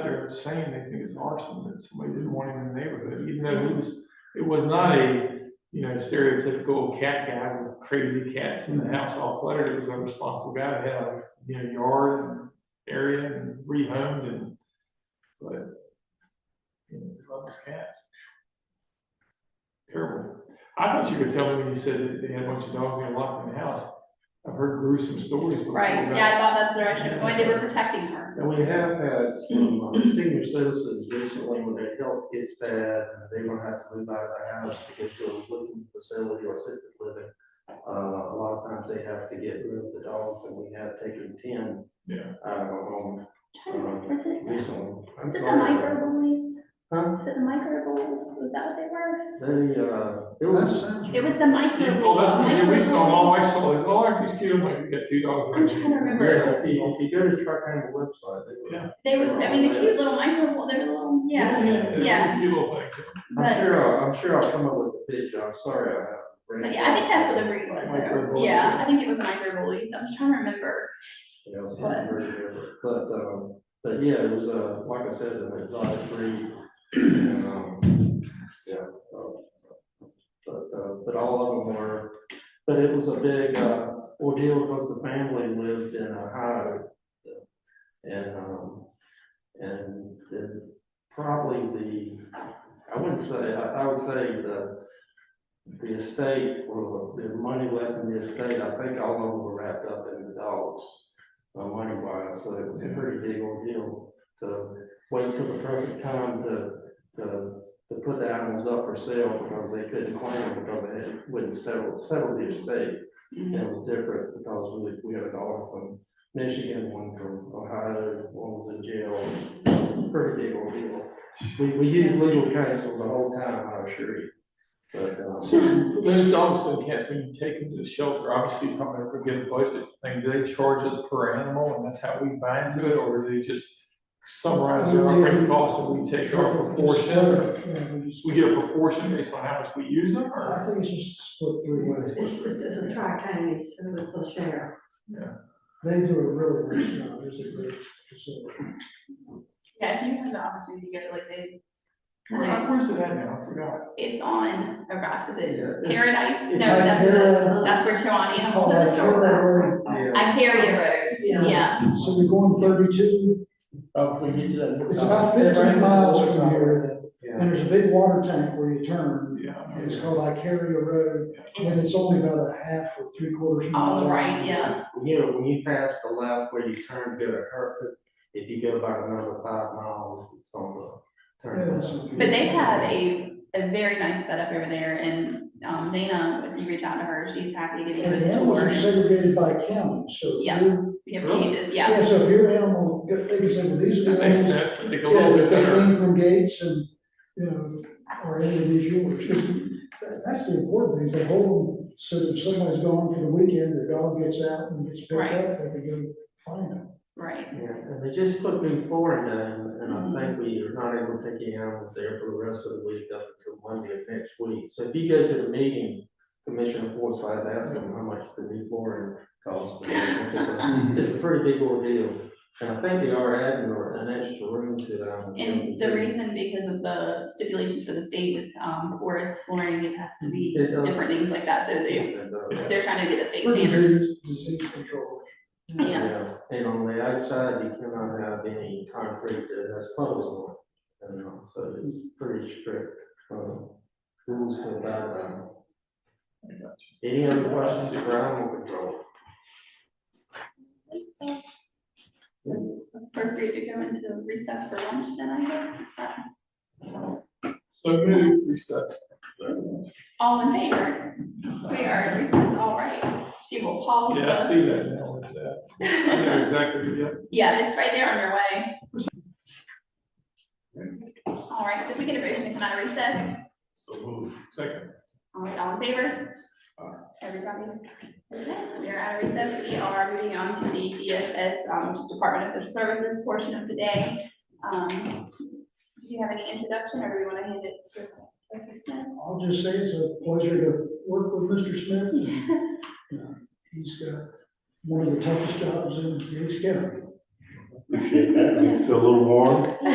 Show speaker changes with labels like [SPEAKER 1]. [SPEAKER 1] there saying they think it's arson, that somebody didn't want him in the neighborhood, even though it was, it was not a, you know, stereotypical cat guy with crazy cats in the
[SPEAKER 2] Mm-hmm.
[SPEAKER 1] house all cluttered, it was a responsible guy that had, a, you know, yard and area and rehomed and, but, you know, he loved his cats. Terrible. I thought you could tell me when you said that they had a bunch of dogs in a locked in the house, I've heard gruesome stories before.
[SPEAKER 2] Right,
[SPEAKER 1] about-
[SPEAKER 2] yeah, I thought that's the direction, so they were protecting her.
[SPEAKER 3] And we have had some uh, senior citizens recently when their health gets bad, and they don't have to move out of their house to get to a living facility or assisted living. Uh, a lot of times they have to get rid of the dogs, and we have taken ten
[SPEAKER 1] Yeah.
[SPEAKER 3] out of our home
[SPEAKER 2] Was it, was
[SPEAKER 3] recently. I'm
[SPEAKER 2] it the
[SPEAKER 3] sorry.
[SPEAKER 2] microbullies?
[SPEAKER 3] Huh?
[SPEAKER 2] Was it the microbullies? Was that what they were?
[SPEAKER 3] They, uh, it
[SPEAKER 4] That
[SPEAKER 3] was,
[SPEAKER 4] sounds.
[SPEAKER 2] It was the
[SPEAKER 1] Yeah,
[SPEAKER 2] microbullies.
[SPEAKER 1] well, that's the thing, we saw, my
[SPEAKER 2] microbullies.
[SPEAKER 1] wife saw, it, oh, aren't these cute, I'm like, we got two dogs.
[SPEAKER 2] I'm trying to remember.
[SPEAKER 3] yeah, if you, if you go to Truckham website, they were.
[SPEAKER 1] Yeah.
[SPEAKER 2] They were, I mean, the cute little microbull, they're little, yeah,
[SPEAKER 1] Yeah,
[SPEAKER 2] Yeah.
[SPEAKER 1] yeah, cute little things.
[SPEAKER 3] I'm
[SPEAKER 2] but,
[SPEAKER 3] sure, I'll- I'm sure I'll come up with a picture, I'm sorry I have.
[SPEAKER 2] but yeah, I think that's what the breed was, though.
[SPEAKER 3] Microbullies.
[SPEAKER 2] yeah, I think it was the microbullies, I'm just trying to remember.
[SPEAKER 3] you know,
[SPEAKER 2] But-
[SPEAKER 3] it's very different. But, um, but yeah, it was, uh, like I said, an exotic breed. and, um, Yeah. um, But, uh, but all of them were, but it was a big uh, ordeal because the family lived in Ohio. And, um, and then probably the, I wouldn't say, I, I would say the, the estate, or the money left in the estate, I think all of them were wrapped up in the dogs uh, money wise, so it was a pretty big ordeal to wait till the perfect time to, to, to put the animals up for sale because they couldn't claim them because they wouldn't settle, settle the estate. And it was different because we, we had a dog from Michigan, one from Ohio, one was in jail. It was a Pretty big ordeal. We, we used legal counsel the whole time, I assure you. But,
[SPEAKER 1] So
[SPEAKER 3] um,
[SPEAKER 1] for those dogs and cats, when you take them to the shelter, obviously you're talking about forget a budget thing, do they charge us per animal and that's how we buy into it, or do they just summarize our operating costs and we take our proportion? We get a proportion based on how much we use them?
[SPEAKER 4] I
[SPEAKER 1] or-
[SPEAKER 4] think it's just split three ways.
[SPEAKER 5] It's, it's a tri-county, so it's a share.
[SPEAKER 4] They do a really nice job, it's a great facility.
[SPEAKER 2] Yeah, if you have the opportunity to get it, like, they, Uh-huh.
[SPEAKER 1] Where- Where's it at now? I forgot.
[SPEAKER 2] it's on, oh gosh, is it
[SPEAKER 3] yeah, it's-
[SPEAKER 2] Paradise? No,
[SPEAKER 4] Like
[SPEAKER 2] that's
[SPEAKER 4] they're,
[SPEAKER 2] the,
[SPEAKER 4] uh,
[SPEAKER 2] Oh, that's where Chawani,
[SPEAKER 4] it's
[SPEAKER 2] has
[SPEAKER 4] called like
[SPEAKER 2] the store.
[SPEAKER 4] they're, uh,
[SPEAKER 3] yeah.
[SPEAKER 2] Icaria Road, yeah,
[SPEAKER 4] So we're going thirty-two,
[SPEAKER 3] Uh, we need to-
[SPEAKER 4] it's about fifteen miles from here,
[SPEAKER 3] Yeah.
[SPEAKER 4] and there's a big water tank where you turn,
[SPEAKER 1] Yeah. I know.
[SPEAKER 4] and it's called Icaria Road, and
[SPEAKER 2] it's
[SPEAKER 4] it's only about a half or three quarters mile.
[SPEAKER 2] on the Oh, right,
[SPEAKER 4] long.
[SPEAKER 2] yeah,
[SPEAKER 3] you know, when you pass the left where you turn to go to Hereford, if you go about another five miles, it's on the
[SPEAKER 4] Yeah,
[SPEAKER 3] turn.
[SPEAKER 4] it's a-
[SPEAKER 2] but they had a, a very nice setup over there, and, um, Dana, if you reach out to her, she's happy to give you
[SPEAKER 4] And the
[SPEAKER 2] a
[SPEAKER 4] animals
[SPEAKER 2] tour.
[SPEAKER 4] are segregated by county, so. if
[SPEAKER 2] Yeah.
[SPEAKER 4] you're-
[SPEAKER 2] We have pages, yeah,
[SPEAKER 4] Yeah, so if your animal, if they can say, well, these are
[SPEAKER 1] That
[SPEAKER 4] the
[SPEAKER 1] makes
[SPEAKER 4] animals.
[SPEAKER 1] sense, I think a
[SPEAKER 4] Yeah,
[SPEAKER 1] little bit
[SPEAKER 4] if they
[SPEAKER 1] better.
[SPEAKER 4] came from Gates and, you know, or any of these yours, 'cause that- that's the important thing, is they hold them, so that if somebody's gone for the weekend, their dog gets out and gets picked
[SPEAKER 2] Right.
[SPEAKER 4] up, they can go find them.
[SPEAKER 2] right,
[SPEAKER 3] Yeah, and they just put me forward and,
[SPEAKER 2] Mm-hmm.
[SPEAKER 3] and I think we are not able to take any animals there for the rest of the week up until Monday of next week. So if you go to the meeting, Commissioner Forsythe, ask them how much the new flooring costs. It's a pretty big ordeal, and I think they are adding an extra room to that.
[SPEAKER 2] and the reason because of the stipulations for the state with, um, forest flooring, it has to be
[SPEAKER 3] It does.
[SPEAKER 2] different things like that, so they,
[SPEAKER 3] And, uh,
[SPEAKER 2] they're trying to get a state
[SPEAKER 4] Pretty
[SPEAKER 2] standard,
[SPEAKER 4] good disease control.
[SPEAKER 2] yeah,
[SPEAKER 3] And on the outside, you cannot have any concrete that has puddles on it, and uh, so it's pretty strict, um, rules for that. um, Any other questions for animal control?
[SPEAKER 2] we're free to go into recess for lunch then, I guess, is that-
[SPEAKER 1] So move recess.
[SPEAKER 2] All in favor? We are, in recess. all right. She will pause.
[SPEAKER 1] Yeah, I see that now, it's, uh, I know exactly, yeah.
[SPEAKER 2] Yeah, it's right there on your way. All right, so if we get a motion to come out of recess,
[SPEAKER 1] Second.
[SPEAKER 2] all right, all in favor? Everybody? Okay, We are out of recess. We are moving on to the DSS, um, which is Department of Social Services portion of the day. Um, do you have any introduction or do we want to hand it to? Dr.
[SPEAKER 4] I'll just say it's a pleasure to work with Mr. Smith.
[SPEAKER 2] Smith?
[SPEAKER 4] He's got one of the toughest jobs in Gates County.
[SPEAKER 6] Appreciate that. You Feel a little warm?